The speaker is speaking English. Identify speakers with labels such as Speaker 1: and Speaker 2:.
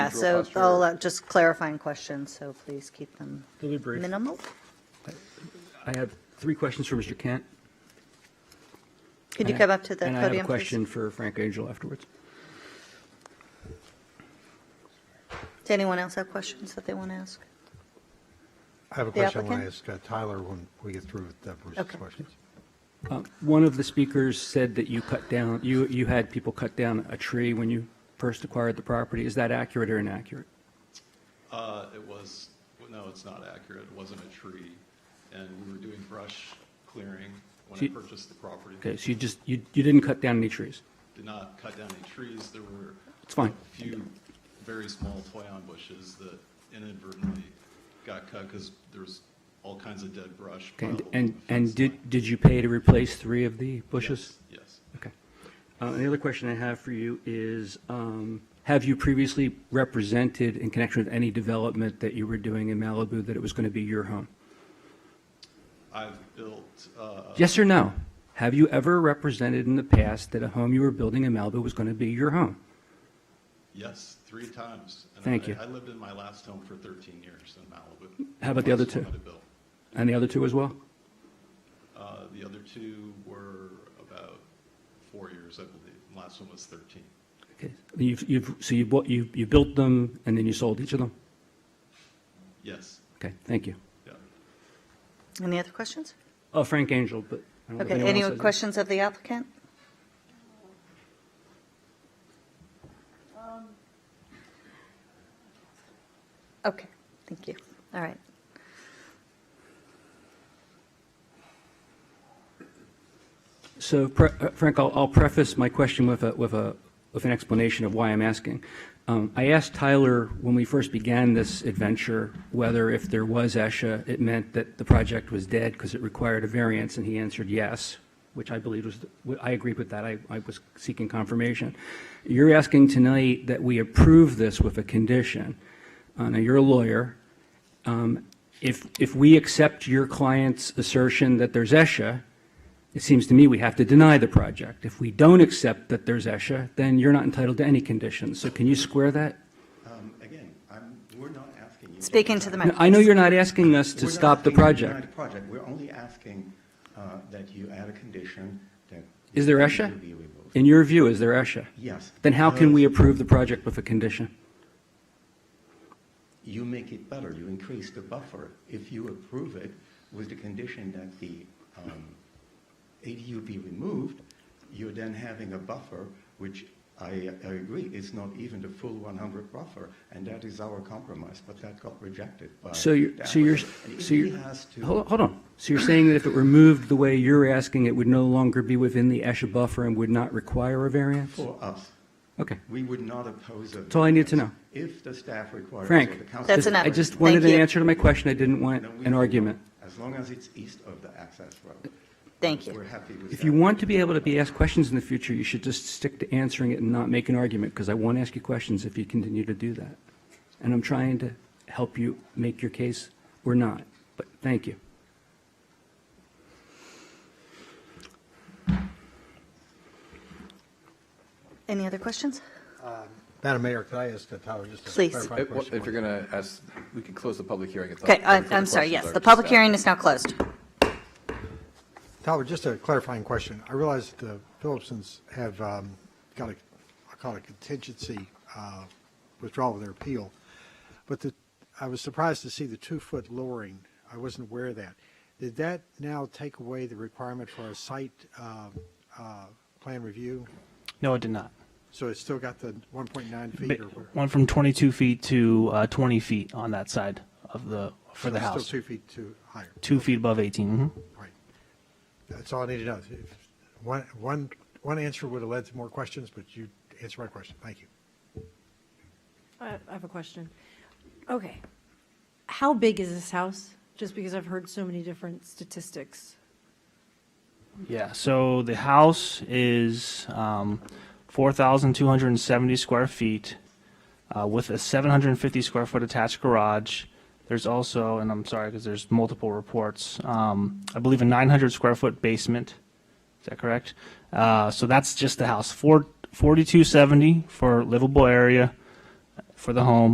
Speaker 1: so
Speaker 2: cost
Speaker 1: all,
Speaker 2: or-
Speaker 1: uh, just clarifying questions, so please keep them
Speaker 3: They'll be brief.
Speaker 1: minimal.
Speaker 4: I have three questions for Mr. Kent.
Speaker 1: Could you come up to the
Speaker 4: And I have a
Speaker 1: podium, please?
Speaker 4: question for Frank Angel afterwards.
Speaker 1: Does anyone else have questions that they want to ask?
Speaker 2: I have a
Speaker 1: The
Speaker 2: question I want to
Speaker 1: applicant?
Speaker 2: ask uh, Tyler when we get through with uh, Bruce's
Speaker 1: Okay.
Speaker 2: questions.
Speaker 4: Uh, One of the speakers said that you cut down, you, you had people cut down a tree when you first acquired the property. Is that accurate or inaccurate?
Speaker 5: Uh, it was, no, it's not accurate. It wasn't a tree. And we were doing brush clearing when I
Speaker 4: See-
Speaker 5: purchased the property.
Speaker 4: Okay, so you just, you, you didn't cut down any trees?
Speaker 5: Did not cut down any trees. There were
Speaker 4: It's fine.
Speaker 5: a few very small toyon bushes that inadvertently got cut because there was all kinds of dead brush.
Speaker 4: Okay,
Speaker 5: piled on
Speaker 4: and,
Speaker 5: the
Speaker 4: and
Speaker 5: fence line.
Speaker 4: did, did you pay to replace three of the bushes?
Speaker 5: Yes, Yes.
Speaker 4: Okay. Uh, and The other question I have for you is, um, have you previously represented in connection with any development that you were doing in Malibu that it was going to be your home?
Speaker 5: I've built, uh,
Speaker 4: Yes or no? Have you ever represented in the past that a home you were building in Malibu was going to be your home?
Speaker 5: yes, three times. And
Speaker 4: Thank
Speaker 5: I-
Speaker 4: you.
Speaker 5: I lived in my last home for 13 years in Malibu.
Speaker 4: How about the other
Speaker 5: Last one
Speaker 4: two?
Speaker 5: that I built.
Speaker 4: And the other two as well?
Speaker 5: Uh, The other two were about four years, I believe. and Last one was 13.
Speaker 4: Okay. You've, you've, so you bought, you, you built them and then you sold each of them?
Speaker 5: Yes,
Speaker 4: Okay, thank you.
Speaker 5: yeah.
Speaker 1: Any other questions?
Speaker 4: Oh, Frank Angel, but I don't know if
Speaker 1: Okay,
Speaker 4: anyone
Speaker 1: any
Speaker 4: else has it.
Speaker 1: questions of the applicant? Okay, thank you. All right.
Speaker 4: So pre- uh, Frank, I'll I'll preface my question with a, with a, with an explanation of why I'm asking. Um, I asked Tyler when we first began this adventure whether if there was ESHA, it meant that the project was dead because it required a variance, and he answered yes, which I believe was, the- I agreed with that. I, I was seeking confirmation. You're asking tonight that we approve this with a condition. Uh, Now, you're a lawyer. Um, If, if we accept your client's assertion that there's ESHA, it seems to me we have to deny the project. If we don't accept that there's ESHA, then you're not entitled to any conditions. So can you square that?
Speaker 6: Um, Again, I'm, we're not asking you.
Speaker 1: Speak into the mic.
Speaker 4: No, I know you're not asking us to
Speaker 6: We're not
Speaker 4: stop the
Speaker 6: asking you to deny
Speaker 4: project.
Speaker 6: the project. We're only asking uh, that you add a condition that.
Speaker 4: Is there
Speaker 6: the
Speaker 4: ESHA?
Speaker 6: tree be removed.
Speaker 4: In your view, is there ESHA?
Speaker 6: Yes. Uh,
Speaker 4: Then how can
Speaker 6: because
Speaker 4: we approve the project with a condition?
Speaker 6: You make it better, you increase the buffer. If you approve it with the condition that the um, ADU be removed, you're then having a buffer, which I I agree, is not even the full 100 buffer, and that is our compromise, but that got rejected by.
Speaker 4: So you're,
Speaker 6: the
Speaker 4: so you're,
Speaker 6: applicant. And
Speaker 4: so
Speaker 6: he
Speaker 4: you're,
Speaker 6: has to-
Speaker 4: hold hold on. So you're saying that if it were moved the way you're asking, it would no longer be within the ESHA buffer and would not require a variance?
Speaker 6: For us,
Speaker 4: Okay.
Speaker 6: we would not oppose a.
Speaker 4: That's all I need to
Speaker 6: variance
Speaker 4: know.
Speaker 6: If the staff requires.
Speaker 4: Frank,
Speaker 6: or the council
Speaker 1: That's
Speaker 4: just-
Speaker 1: enough.
Speaker 4: I just wanted an
Speaker 1: Thank you.
Speaker 4: answer to my question. I didn't want
Speaker 6: No, we
Speaker 4: an
Speaker 6: will.
Speaker 4: argument.
Speaker 6: As long as it's east of the access road.
Speaker 1: Thank you.
Speaker 6: We're happy with that.
Speaker 4: If you want to be able to be asked questions in the future, you should just stick to answering it and not make an argument, because I won't ask you questions if you continue to do that. And I'm trying to help you make your case or not, but thank you.
Speaker 1: Any other questions?
Speaker 4: Oh,
Speaker 2: Madam Mayor, could I ask uh, Tyler just a
Speaker 1: Please.
Speaker 2: clarifying
Speaker 7: If Uh, well,
Speaker 2: question?
Speaker 7: if you're going to ask, we can close the public hearing. if the-
Speaker 1: Okay,
Speaker 7: if
Speaker 1: I-
Speaker 7: the
Speaker 1: I'm sorry,
Speaker 7: questions
Speaker 1: yes, the
Speaker 7: are to
Speaker 1: public
Speaker 7: staff.
Speaker 1: hearing is now closed.
Speaker 2: Tyler, just a clarifying question. I realize the Phillipsons have um, got a, I call it a contingency uh, withdrawal of their appeal, but the, I was surprised to see the two-foot lowering. I wasn't aware of that. Did that now take away the requirement for a site uh, uh, plan review?
Speaker 8: No, it did not.
Speaker 2: So it's still got the 1.9
Speaker 8: Ba-
Speaker 2: feet or where?
Speaker 8: Went from 22 feet to uh, 20 feet on that side of the for
Speaker 2: So
Speaker 8: the
Speaker 2: it's
Speaker 8: house.
Speaker 2: Still two feet too higher.
Speaker 8: Two feet above 18. mhm.
Speaker 2: Right. That's all I need to know. If One, one, one answer would have led to more questions, but you answered my question. Thank you.
Speaker 9: I I have a question. Okay. How big is this house? Just because I've heard so many different statistics.
Speaker 8: Yeah. So the house is um, 4,270 square feet uh, with a 750 square foot attached garage. There's also, and I'm sorry because there's multiple reports. Um, I believe a 900 square foot basement. Is that correct? Uh, so that's just the house. Four, 4270 for livable area. for the home.